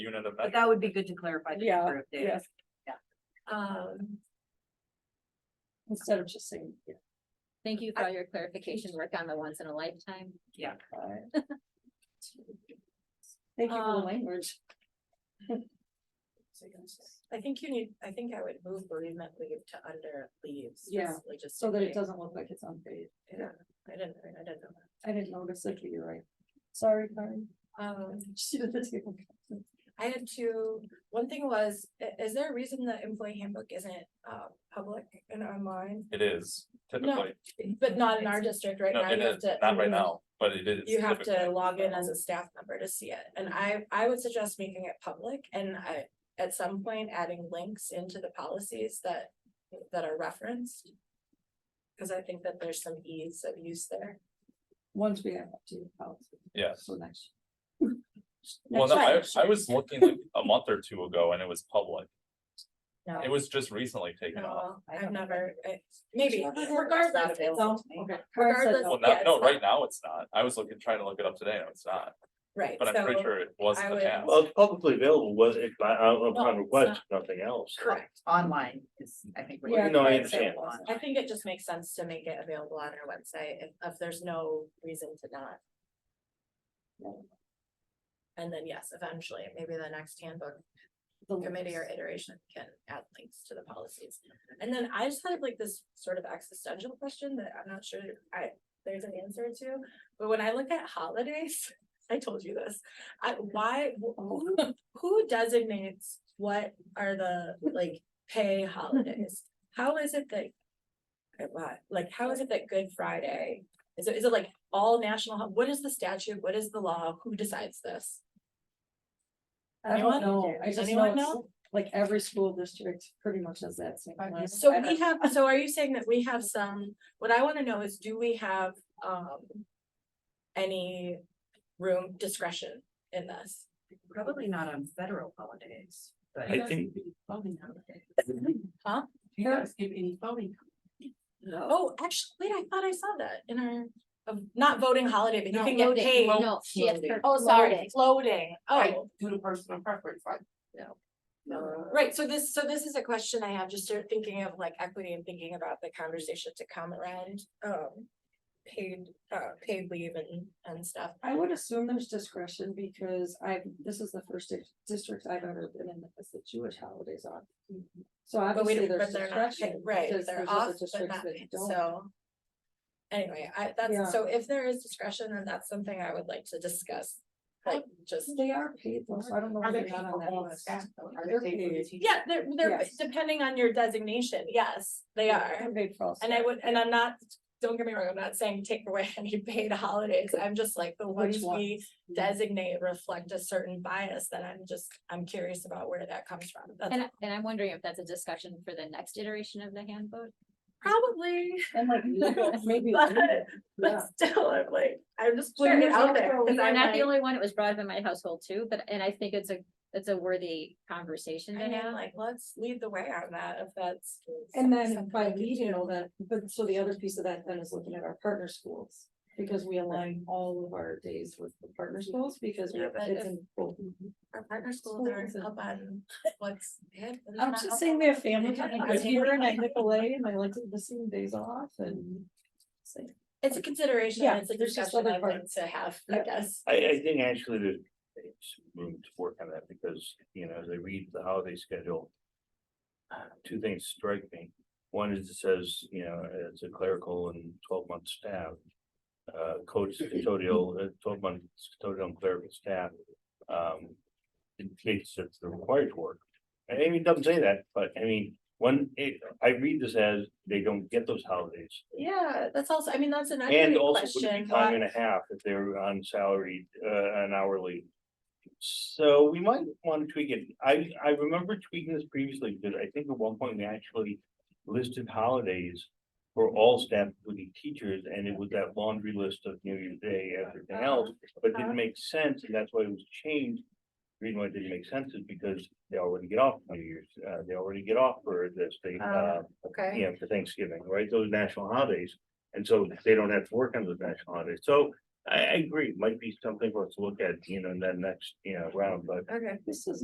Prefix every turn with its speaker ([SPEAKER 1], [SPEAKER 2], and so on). [SPEAKER 1] unit of
[SPEAKER 2] But
[SPEAKER 1] measure.
[SPEAKER 2] that would be good to clarify. the
[SPEAKER 3] Yeah,
[SPEAKER 2] number of days.
[SPEAKER 3] yes.
[SPEAKER 2] Um,
[SPEAKER 3] Instead of just saying. yeah,
[SPEAKER 4] Thank you for all your clarification work on the once in a lifetime.
[SPEAKER 2] yeah,
[SPEAKER 3] alright. Thank you for the
[SPEAKER 5] Um,
[SPEAKER 3] language.
[SPEAKER 5] I think you need, I think I would move bereavement leave to under leaves.
[SPEAKER 3] Yeah,
[SPEAKER 5] just logistically.
[SPEAKER 3] So that it doesn't look like it's unpaid.
[SPEAKER 5] Yeah, I didn't, I didn't know
[SPEAKER 3] I didn't notice it, but you're right. Sorry, Karen.
[SPEAKER 5] that. Um,
[SPEAKER 3] She did the table.
[SPEAKER 5] I had two, one thing was, i- is there a reason the employee handbook isn't uh public and online?
[SPEAKER 1] It is typically,
[SPEAKER 5] But not in our district right
[SPEAKER 1] no,
[SPEAKER 5] now.
[SPEAKER 1] it
[SPEAKER 5] you have
[SPEAKER 1] is,
[SPEAKER 5] to-
[SPEAKER 1] not right now, but it is.
[SPEAKER 5] You have to
[SPEAKER 1] typically.
[SPEAKER 5] log in as a staff member to see it, and I
[SPEAKER 4] Mm-hmm.
[SPEAKER 5] I would suggest making it public and I, at some point, adding links into the policies that that are referenced. Cause I think that there's some ease of use there.
[SPEAKER 3] Once we have to the policy.
[SPEAKER 1] Yes.
[SPEAKER 3] So next.
[SPEAKER 1] Well,
[SPEAKER 3] Next
[SPEAKER 1] no, I, I
[SPEAKER 3] slide.
[SPEAKER 1] was looking like a month or two ago and it was public.
[SPEAKER 5] No.
[SPEAKER 1] It was just recently taken off.
[SPEAKER 5] No,
[SPEAKER 4] I
[SPEAKER 5] I've
[SPEAKER 4] don't
[SPEAKER 5] never, I- maybe
[SPEAKER 3] Sure.
[SPEAKER 5] regardless, it's all,
[SPEAKER 3] Okay. Karen said
[SPEAKER 5] regardless.
[SPEAKER 3] no.
[SPEAKER 1] Well,
[SPEAKER 5] yeah,
[SPEAKER 1] now,
[SPEAKER 5] it's
[SPEAKER 1] no,
[SPEAKER 5] not-
[SPEAKER 1] right now it's not. I was looking, trying to look it up today and it's not,
[SPEAKER 5] Right,
[SPEAKER 1] but I'm pretty
[SPEAKER 5] so,
[SPEAKER 1] sure it was
[SPEAKER 5] I
[SPEAKER 1] in the
[SPEAKER 5] would-
[SPEAKER 1] past.
[SPEAKER 6] Well, it's publicly available, was it, I, I,
[SPEAKER 5] No,
[SPEAKER 6] upon
[SPEAKER 5] it's
[SPEAKER 6] request, nothing else.
[SPEAKER 5] correct,
[SPEAKER 2] online is, I think. what
[SPEAKER 3] Yeah.
[SPEAKER 2] you're
[SPEAKER 6] No, I
[SPEAKER 2] saying,
[SPEAKER 6] understand.
[SPEAKER 2] online.
[SPEAKER 5] I think it just makes sense to make it available on our website if if there's no reason to not. And then, yes, eventually, maybe the next handbook
[SPEAKER 3] The
[SPEAKER 5] committee or
[SPEAKER 3] links.
[SPEAKER 5] iteration can add links to the policies. And then I just had like this sort of existential question that I'm not sure I, there's an answer to, but when I look at holidays, I told you this. I, why, who, who designates what are the like pay holidays? How is it that? uh, why- Like, how is it that Good Friday, is it, is it like all national, hol- what is the statute, what is the law, who decides this?
[SPEAKER 3] I don't
[SPEAKER 5] Anyone?
[SPEAKER 3] know. I just know,
[SPEAKER 5] Anyone
[SPEAKER 3] it's-
[SPEAKER 5] know?
[SPEAKER 3] like every school district pretty much has that same. plan.
[SPEAKER 5] So
[SPEAKER 3] I
[SPEAKER 5] we
[SPEAKER 3] don't-
[SPEAKER 5] have, so are you saying that we have some, what I wanna know is, do we have, um. Any room discretion in this?
[SPEAKER 2] Probably not on federal holidays, but.
[SPEAKER 6] I think,
[SPEAKER 5] Huh?
[SPEAKER 2] Do you guys give any voting? No.
[SPEAKER 5] Oh, actually, wait, I thought I saw that in our, of not voting holiday, but you
[SPEAKER 2] No,
[SPEAKER 5] can get
[SPEAKER 4] Floating.
[SPEAKER 5] paid.
[SPEAKER 4] No, she has her
[SPEAKER 5] Oh, sorry,
[SPEAKER 4] floating.
[SPEAKER 5] floating,
[SPEAKER 2] I
[SPEAKER 5] oh,
[SPEAKER 2] do the personal preference, I, no. No.
[SPEAKER 5] right, so this, so this is a question I have, just start thinking of like equity and thinking about the conversation to come around, um. Paid, uh, paid leave and, and stuff.
[SPEAKER 3] I would assume there's discretion because I've, this is the first dis- district I've ever been in that has the Jewish holidays on. So
[SPEAKER 5] But we
[SPEAKER 3] obviously
[SPEAKER 5] don't,
[SPEAKER 3] there's
[SPEAKER 5] but they're not paid,
[SPEAKER 3] discretion.
[SPEAKER 5] right,
[SPEAKER 3] because
[SPEAKER 5] they're
[SPEAKER 3] there's
[SPEAKER 5] off,
[SPEAKER 3] other
[SPEAKER 5] but
[SPEAKER 3] districts
[SPEAKER 5] not
[SPEAKER 3] that
[SPEAKER 5] paid,
[SPEAKER 3] don't.
[SPEAKER 5] so. Anyway, I,
[SPEAKER 3] Yeah.
[SPEAKER 5] that's, so if there is discretion, then that's something I would like to discuss, like, just.
[SPEAKER 3] They are paid though, so I don't know.
[SPEAKER 2] Are
[SPEAKER 3] if
[SPEAKER 2] there
[SPEAKER 3] they're not
[SPEAKER 2] people
[SPEAKER 3] on that
[SPEAKER 2] on the
[SPEAKER 3] list.
[SPEAKER 2] staff though? Are
[SPEAKER 3] They're
[SPEAKER 2] they paid for the
[SPEAKER 3] paid.
[SPEAKER 2] teacher?
[SPEAKER 5] Yeah, they're, they're,
[SPEAKER 3] Yes.
[SPEAKER 5] depending on your designation, yes, they are,
[SPEAKER 3] They're paid for all
[SPEAKER 5] and I
[SPEAKER 3] staff.
[SPEAKER 5] would, and I'm not, don't get me wrong, I'm not saying take away any paid holidays, I'm just like, the
[SPEAKER 3] Which Mm-hmm.
[SPEAKER 5] ones we designate reflect a certain bias, that I'm just, I'm curious about where that comes from, that's
[SPEAKER 4] And, and I'm wondering if that's a discussion for the next iteration of the handbook.
[SPEAKER 5] probably.
[SPEAKER 3] And like, legal- maybe.
[SPEAKER 5] But-
[SPEAKER 3] legal, yeah.
[SPEAKER 5] But still, I'm like, I'm just
[SPEAKER 4] Sure,
[SPEAKER 5] putting it
[SPEAKER 4] there's
[SPEAKER 5] out
[SPEAKER 4] also-
[SPEAKER 5] there. 'cause
[SPEAKER 4] You're
[SPEAKER 5] I'm
[SPEAKER 4] not the
[SPEAKER 5] like-
[SPEAKER 4] only one. It was brought up in my household too, but, and I think it's a, it's a worthy conversation to
[SPEAKER 5] I mean,
[SPEAKER 4] have.
[SPEAKER 5] like, let's lead the way on that if that's.
[SPEAKER 3] And
[SPEAKER 5] something
[SPEAKER 3] then by
[SPEAKER 5] we can
[SPEAKER 3] leading
[SPEAKER 5] do.
[SPEAKER 3] all that, but so the other piece of that then is looking at our partner schools. Because we align all of our days with the partner schools because we
[SPEAKER 5] Yeah,
[SPEAKER 3] have
[SPEAKER 5] but
[SPEAKER 3] kids
[SPEAKER 5] if-
[SPEAKER 3] in both.
[SPEAKER 5] Our partner schools aren't
[SPEAKER 3] Schools
[SPEAKER 5] up on what's. hip and
[SPEAKER 3] I'm
[SPEAKER 5] not up
[SPEAKER 3] just saying
[SPEAKER 5] on
[SPEAKER 3] we have
[SPEAKER 5] what's
[SPEAKER 3] family
[SPEAKER 5] hip.
[SPEAKER 3] time, because here and I like away and I like to listen days off and. say,
[SPEAKER 5] It's a consideration,
[SPEAKER 3] Yeah,
[SPEAKER 5] it's a
[SPEAKER 3] there's just
[SPEAKER 5] discussion
[SPEAKER 3] other
[SPEAKER 5] I'd like
[SPEAKER 3] parts.
[SPEAKER 5] to have, I
[SPEAKER 3] Yeah.
[SPEAKER 5] guess.
[SPEAKER 6] I, I think actually there's room to work on that because, you know, as I read the holiday schedule. uh, Two things strike me. One is it says, you know, it's a clerical and twelve month staff. Uh, coach custodial, uh, twelve month custodial and clerical staff. Um, indicates that they're required to work. I mean, it doesn't say that, but I mean, one, it, I read this as they don't get those holidays.
[SPEAKER 5] Yeah, that's also, I mean, that's an
[SPEAKER 6] And
[SPEAKER 5] accurate
[SPEAKER 6] also would
[SPEAKER 5] question.
[SPEAKER 6] be time
[SPEAKER 5] why-
[SPEAKER 6] and a half if they're on salary, uh, an hourly. So we might want to tweak it. I, I remember tweaking this previously, because I think at one point we actually listed holidays for all staff, including teachers, and it was that laundry list of New Year's Day, everything else, but it didn't make sense, and that's why it was changed. The Reason why it didn't make sense is because they already get off New Year's, uh, they already get off for this, they, uh,
[SPEAKER 5] Ah, Okay,
[SPEAKER 6] you know, for Thanksgiving, right, those national holidays. And so they don't have to work on those national holidays, so I, I agree, might be something for us to look at, you know, in that next, you know, round, but
[SPEAKER 5] Okay.
[SPEAKER 3] This is